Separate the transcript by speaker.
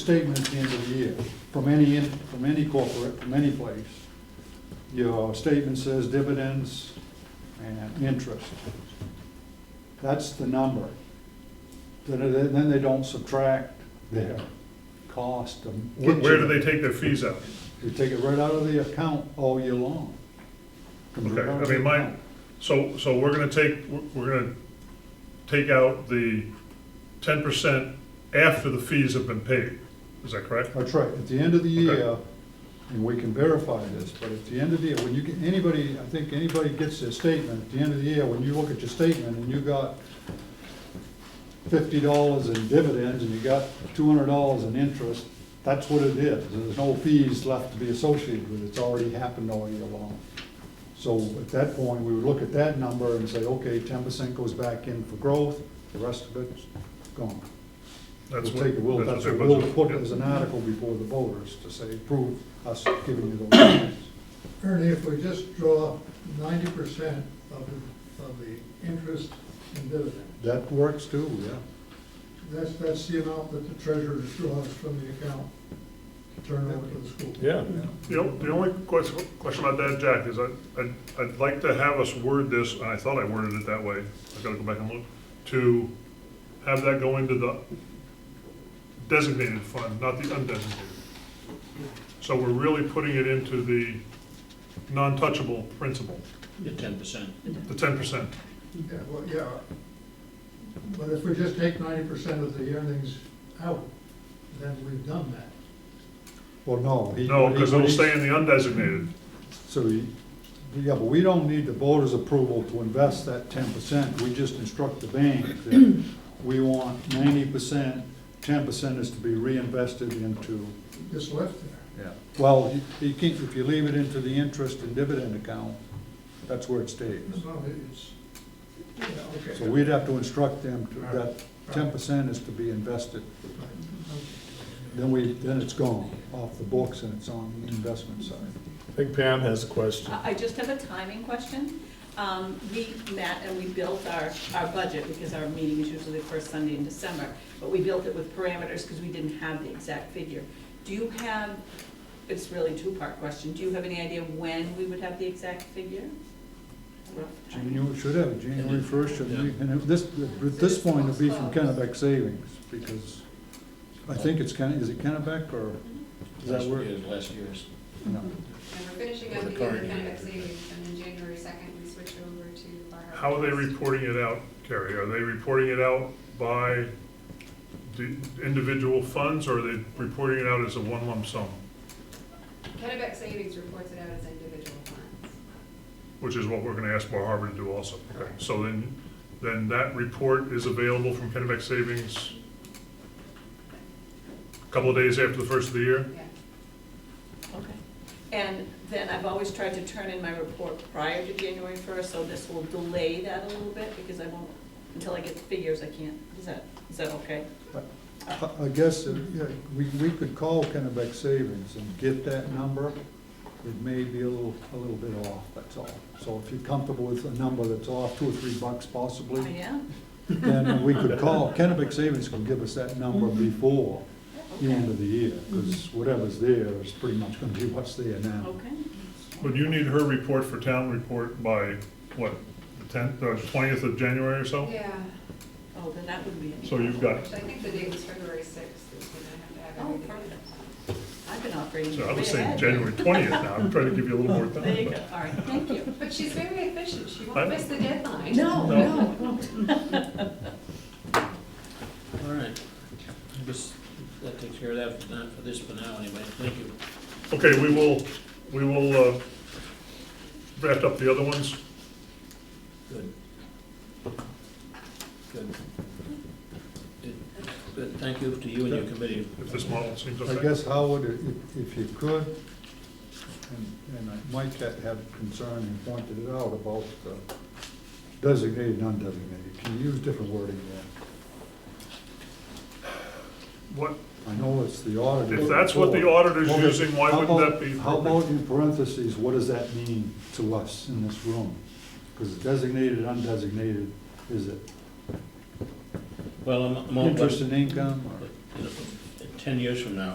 Speaker 1: statement at the end of the year, from any, en- from any corporate, from any place. Your statement says dividends and interest. That's the number. Then, then they don't subtract their cost of.
Speaker 2: Where, where do they take their fees out?
Speaker 1: They take it right out of the account all year long. Comes
Speaker 2: Okay,
Speaker 1: right out
Speaker 2: I
Speaker 1: of
Speaker 2: mean,
Speaker 1: the
Speaker 2: my,
Speaker 1: account.
Speaker 2: so, so we're gonna take, we're- we're gonna take out the ten percent after the fees have been paid, is that correct?
Speaker 1: That's right, at the end of the
Speaker 2: Okay.
Speaker 1: year, and we can verify this, but at the end of the year, when you get, anybody, I think anybody gets their statement, at the end of the year, when you look at your statement and you got fifty dollars in dividends and you got two hundred dollars in interest, that's what it is. There's no fees left to be associated with it, it's already happened all year long. So at that point, we would look at that number and say, okay, ten percent goes back in for growth, the rest of it's gone.
Speaker 2: That's
Speaker 1: We'll take it,
Speaker 2: what-
Speaker 1: we'll,
Speaker 2: that's
Speaker 1: that's
Speaker 2: their
Speaker 1: what we'll
Speaker 2: budget,
Speaker 1: put
Speaker 2: yeah.
Speaker 1: as an article before the voters to say, prove us giving you those things.
Speaker 3: Ernie, if we just draw ninety percent of, the- of the interest and dividend,
Speaker 1: That works too, yeah.
Speaker 3: that's, that's the amount that the treasurer draws from the account to turn over to the school.
Speaker 4: Yeah,
Speaker 2: The o- the only question, question about that, Jack, is I, I'd, I'd like to have us word this, and I thought I worded it that way, I gotta go back and look, to have that go into the designated fund, not the undesignated. So we're really putting it into the non-touchable principle,
Speaker 5: The ten percent.
Speaker 2: the ten percent.
Speaker 3: Yeah, well, yeah, but if we just take ninety percent of the earnings out, then we've done that.
Speaker 1: Well, no. he-
Speaker 2: No, because it'll
Speaker 1: he-
Speaker 2: stay in the undesignated.
Speaker 1: So, he- yeah, but we don't need the voters' approval to invest that ten percent. We just instruct the bank that we want ninety percent, ten percent is to be reinvested into,
Speaker 3: Just left there.
Speaker 1: well, you- you can't, if you leave it into the interest and dividend account, that's where it stays.
Speaker 3: No, it's, yeah, okay.
Speaker 1: So we'd have to instruct them to, that ten percent is to be invested.
Speaker 3: Right, okay.
Speaker 1: Then we, then it's gone off the books and it's on the investment side.
Speaker 4: I think Pam has a question.
Speaker 6: I I just have a timing question. Um, We met and we built our, our budget, because our meeting is usually the first Sunday in December, but we built it with parameters because we didn't have the exact figure. Do you have, it's really a two-part question, do you have any idea when we would have the exact figure? Rough time?
Speaker 1: January, should have, it, January first, should be, and it- this, at this point, it'll be from Kennebec Savings, because I think it's Kenne, is it Kennebec or, does that work?
Speaker 5: Last year's.
Speaker 1: No.
Speaker 7: And we're finishing up
Speaker 5: With
Speaker 7: the
Speaker 5: the
Speaker 7: year
Speaker 5: current year.
Speaker 7: kind of savings, and then January second, we switch over to our.
Speaker 2: How are they reporting it out, Carrie? Are they reporting it out by the individual funds, or are they reporting it out as a one lump sum?
Speaker 7: Kennebec Savings reports it out as individual funds.
Speaker 2: Which is what we're gonna ask Bar Harbor to do also. Okay. So then, then that report is available from Kennebec Savings a couple of days after the first of the year?
Speaker 7: Yeah.
Speaker 6: Okay. And then I've always tried to turn in my report prior to January first, so this will delay that a little bit, because I won't, until I get the figures, I can't, is that, is that okay?
Speaker 1: I, I guess, uh, yeah, we, we could call Kennebec Savings and get that number. It may be a little, a little bit off, that's all. So if you're comfortable with a number that's off two or three bucks possibly.
Speaker 6: I am?
Speaker 1: then we could call, Kennebec Savings can give us that number before the end of the year, because whatever's there is pretty much gonna be what's there now.
Speaker 6: Okay.
Speaker 2: Would you need her report for town report by, what, the tenth, or twentieth of January or so?
Speaker 7: Yeah,
Speaker 6: Oh, then that would be. it.
Speaker 2: So you've got
Speaker 7: so I think the date was February sixth, is when I have to have
Speaker 6: Oh,
Speaker 7: everything.
Speaker 6: perfect. I've been operating.
Speaker 2: So I was
Speaker 6: way
Speaker 2: saying
Speaker 6: ahead.
Speaker 2: January twentieth now, I'm trying to give you a little more time.
Speaker 6: There you go, all right, thank you.
Speaker 7: But she's very efficient, she
Speaker 2: I-
Speaker 7: won't miss the deadline.
Speaker 6: No,
Speaker 2: No.
Speaker 6: no, I won't.
Speaker 5: All right. I guess that takes care of that for now, for this for now anyway. Thank you.
Speaker 2: Okay, we will, we will, uh, draft up the other ones.
Speaker 5: Good. Good. Good, thank you to you and your committee.
Speaker 2: If this model seems
Speaker 1: I
Speaker 2: okay.
Speaker 1: guess, Howard, i- if, if you could, and, and I- Mike had, had concern and pointed it out about uh, designated, non-designated, can you use different wording there?
Speaker 2: What,
Speaker 1: I know it's the auditor.
Speaker 2: if that's what the auditor's
Speaker 1: Okay,
Speaker 2: using, why
Speaker 1: how
Speaker 2: wouldn't
Speaker 1: about-
Speaker 2: that be?
Speaker 1: How about in parentheses, what does that mean to us in this room? Because designated, undesignated, is it
Speaker 5: Well, I'm, I'm all, but,
Speaker 1: interest
Speaker 5: you
Speaker 1: and income or?
Speaker 5: know, ten years from now,